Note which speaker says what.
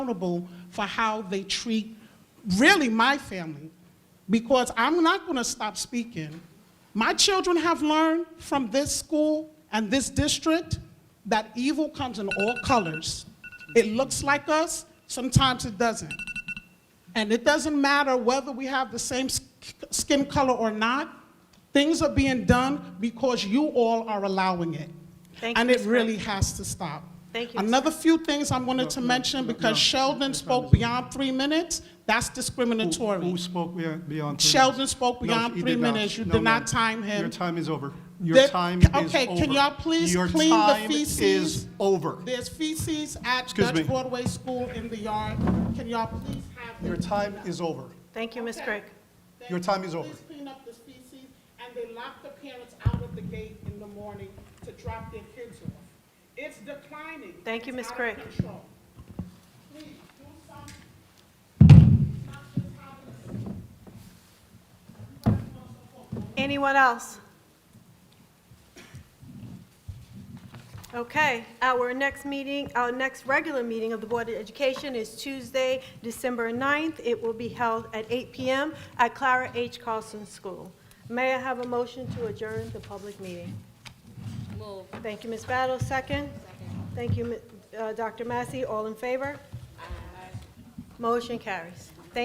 Speaker 1: accountable for how they treat really my family because I'm not going to stop speaking. My children have learned from this school and this district that evil comes in all colors. It looks like us, sometimes it doesn't. And it doesn't matter whether we have the same sk- skin color or not, things are being done because you all are allowing it.
Speaker 2: Thank you,
Speaker 1: And it
Speaker 2: Ms.
Speaker 1: really has to stop.
Speaker 2: Thank you, Ms.
Speaker 1: Another few things I wanted to mention, because Sheldon spoke beyond three minutes, that's
Speaker 3: Who
Speaker 1: discriminatory.
Speaker 3: who spoke beyond three minutes?
Speaker 1: Sheldon spoke
Speaker 3: No,
Speaker 1: beyond
Speaker 3: he
Speaker 1: three
Speaker 3: did not.
Speaker 1: minutes. You
Speaker 3: No,
Speaker 1: did
Speaker 3: ma'am.
Speaker 1: not time him.
Speaker 3: Your time is over.
Speaker 1: There-
Speaker 3: Your time is over.
Speaker 1: okay, can y'all please
Speaker 3: Your
Speaker 1: clean the
Speaker 3: time
Speaker 1: feces?
Speaker 3: is over.
Speaker 1: There's feces at
Speaker 3: Excuse me.
Speaker 1: Dutch Broadway School in the yard. Can y'all please have
Speaker 3: Your
Speaker 1: them?
Speaker 3: time is over.
Speaker 2: Thank you, Ms.
Speaker 1: Okay.
Speaker 2: Craig.
Speaker 3: Your time is over.
Speaker 1: Please clean up the feces, and they lock the parents out of the gate in the morning to drop their kids off. It's declining.
Speaker 2: Thank you,
Speaker 1: It's
Speaker 2: Ms.
Speaker 1: out of
Speaker 2: Craig.
Speaker 1: control. Please, do something. Stop this holiday. You guys want support.
Speaker 2: Anyone else? Okay, our next meeting, our next regular meeting of the Board of Education is Tuesday, December 9th. It will be held at 8 PM at Clara H. Carlson School. May I have a motion to adjourn the public meeting?
Speaker 4: Move.
Speaker 2: Thank you, Ms. Battle, second. Thank you, Mi- uh, Dr. Massey, all in favor? Motion carries.